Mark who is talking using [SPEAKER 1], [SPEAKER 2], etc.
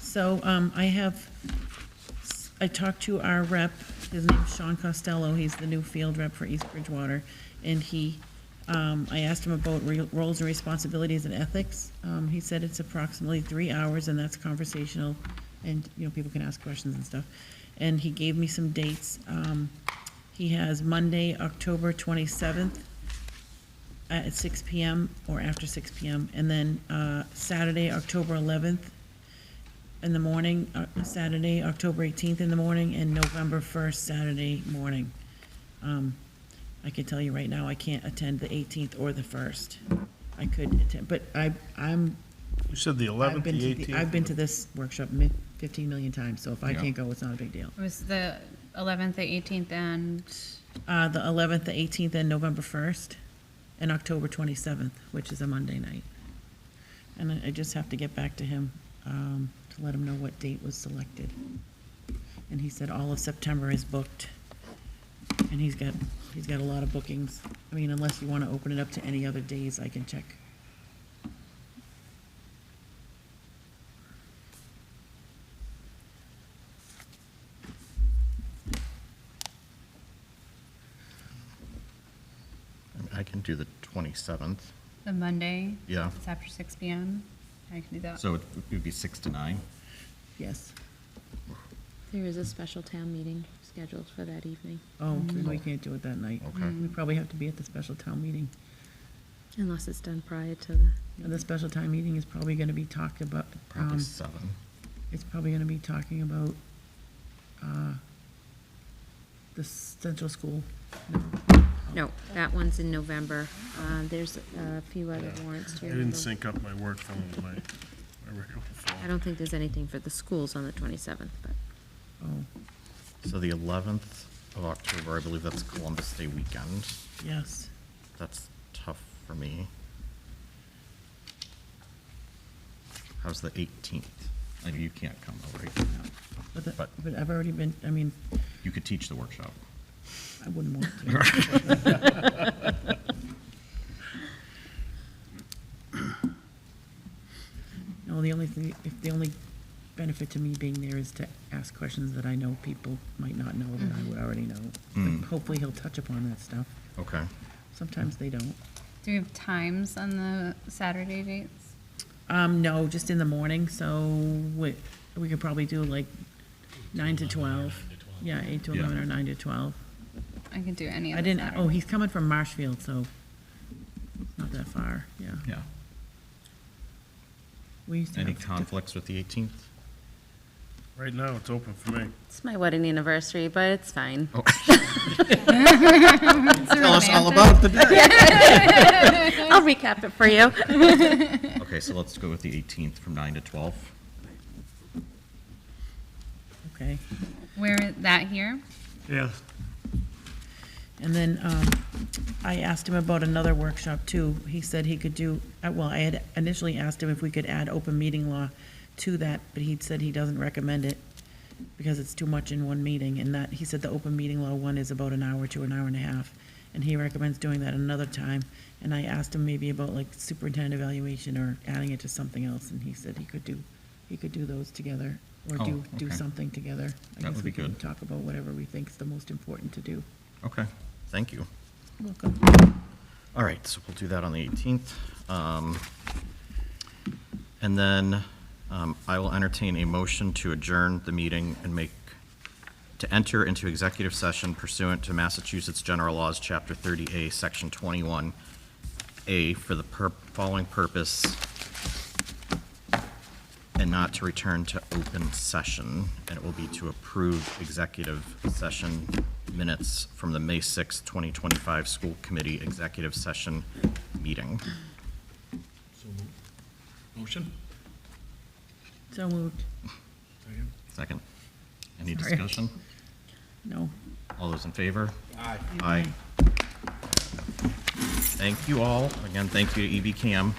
[SPEAKER 1] So um, I have, I talked to our rep, his name's Sean Costello, he's the new field rep for East Bridgewater, and he, um, I asked him about re- roles and responsibilities and ethics. Um, He said it's approximately three hours, and that's conversational, and, you know, people can ask questions and stuff. And he gave me some dates. Um, He has Monday, October 27th, at six PM or after six PM. And then uh, Saturday, October 11th in the morning, uh, Saturday, October 18th in the morning, and November 1st, Saturday morning. Um, I can tell you right now, I can't attend the 18th or the 1st. I could attend, but I, I'm,
[SPEAKER 2] You said the
[SPEAKER 1] I've
[SPEAKER 2] 11th,
[SPEAKER 1] been to,
[SPEAKER 2] the
[SPEAKER 1] the-
[SPEAKER 2] 18th?
[SPEAKER 1] I've been to this workshop mi- 15 million times, so if I
[SPEAKER 3] Yeah.
[SPEAKER 1] can't go, it's not a big deal.
[SPEAKER 4] It was the 11th, the 18th, and
[SPEAKER 1] Uh, The 11th, the 18th, and November 1st, and October 27th, which is a Monday night. And I- I just have to get back to him um, to let him know what date was selected. And he said all of September is booked, and he's got, he's got a lot of bookings. I mean, unless you want to open it up to any other days, I can check.
[SPEAKER 3] I can do the 27th,
[SPEAKER 4] the Monday.
[SPEAKER 3] Yeah.
[SPEAKER 4] It's after 6 PM. I can do that.
[SPEAKER 3] so it would be 6 to 9.
[SPEAKER 1] Yes.
[SPEAKER 5] There is a special town meeting scheduled for that evening,
[SPEAKER 1] Oh, we can't do it that night.
[SPEAKER 3] Mm. Okay.
[SPEAKER 1] We probably have to be at the special town meeting.
[SPEAKER 5] unless it's done prior to the,
[SPEAKER 1] And the special town meeting is probably going to be talked about.
[SPEAKER 3] Probably
[SPEAKER 1] um,
[SPEAKER 3] 7.
[SPEAKER 1] it's probably gonna be talking about, uh, the central school. No.
[SPEAKER 5] no, that one's in November. Uh, There's a few other warrants
[SPEAKER 2] I
[SPEAKER 5] here.
[SPEAKER 2] didn't sync up my work phone with my, my regular
[SPEAKER 5] I
[SPEAKER 2] phone.
[SPEAKER 5] don't think there's anything for the schools on the 27th, but
[SPEAKER 1] Oh,
[SPEAKER 3] So the 11th of October, I believe that's Columbus Day weekend.
[SPEAKER 1] yes.
[SPEAKER 3] That's tough for me. How's the 18th? I know you can't come, though, right?
[SPEAKER 1] But, the-
[SPEAKER 3] But-
[SPEAKER 1] but I've already been, I mean,
[SPEAKER 3] You could teach the workshop.
[SPEAKER 1] I wouldn't want to. No, the only thing, if the only benefit to me being there is to ask questions that I know people might not know that I would already know.
[SPEAKER 3] Mm.
[SPEAKER 1] Hopefully he'll touch upon that stuff.
[SPEAKER 3] Okay.
[SPEAKER 1] Sometimes they don't.
[SPEAKER 4] Do we have times on the Saturday dates?
[SPEAKER 1] Um, no, just in the morning, so we, we could probably do like nine to twelve. Yeah, eight to
[SPEAKER 3] Yeah.
[SPEAKER 1] eleven or nine to twelve.
[SPEAKER 4] I can do any of
[SPEAKER 1] I
[SPEAKER 4] the
[SPEAKER 1] didn't, oh,
[SPEAKER 4] Saturdays.
[SPEAKER 1] he's coming from Marshfield, so not that far, yeah.
[SPEAKER 3] Yeah.
[SPEAKER 1] We used to
[SPEAKER 3] Any
[SPEAKER 1] have-
[SPEAKER 3] conflicts with the 18th?
[SPEAKER 2] Right now, it's open for me.
[SPEAKER 5] it's my wedding anniversary, but it's fine.
[SPEAKER 3] Tell us all about the day.
[SPEAKER 5] I'll recap it for you.
[SPEAKER 3] Okay, so let's go with the 18th from 9 to 12.
[SPEAKER 1] Okay,
[SPEAKER 4] Where, that here?
[SPEAKER 2] Yeah.
[SPEAKER 1] and then, um, I asked him about another workshop too. He said he could do, uh, well, I had initially asked him if we could add open meeting law to that, but he said he doesn't recommend it because it's too much in one meeting, and that, he said the open meeting law one is about an hour to an hour and a half, and he recommends doing that another time. And I asked him maybe about like superintendent evaluation or adding it to something else, and he said he could do, he could do those together, or
[SPEAKER 3] Oh,
[SPEAKER 1] do, do
[SPEAKER 3] okay.
[SPEAKER 1] something together. I
[SPEAKER 3] That
[SPEAKER 1] guess
[SPEAKER 3] would
[SPEAKER 1] we
[SPEAKER 3] be
[SPEAKER 1] can
[SPEAKER 3] good.
[SPEAKER 1] Talk about whatever we think is the most important to do.
[SPEAKER 3] Okay, thank you.
[SPEAKER 1] Welcome.
[SPEAKER 3] All right, so we'll do that on the 18th. Um, And then um, I will entertain a motion to adjourn the meeting and make, to enter into executive session pursuant to Massachusetts General Laws, Chapter 30A, Section 21A, for the pur- following purpose, and not to return to open session, and it will be to approve executive session minutes from the May sixth, 2025 School Committee Executive Session Meeting.
[SPEAKER 6] Motion?
[SPEAKER 1] So moved.
[SPEAKER 3] Second. Any
[SPEAKER 1] Sorry.
[SPEAKER 3] discussion?
[SPEAKER 1] No.
[SPEAKER 3] All those in favor? Aye. Aye. Thank you all. Again, thank you to EB Cam.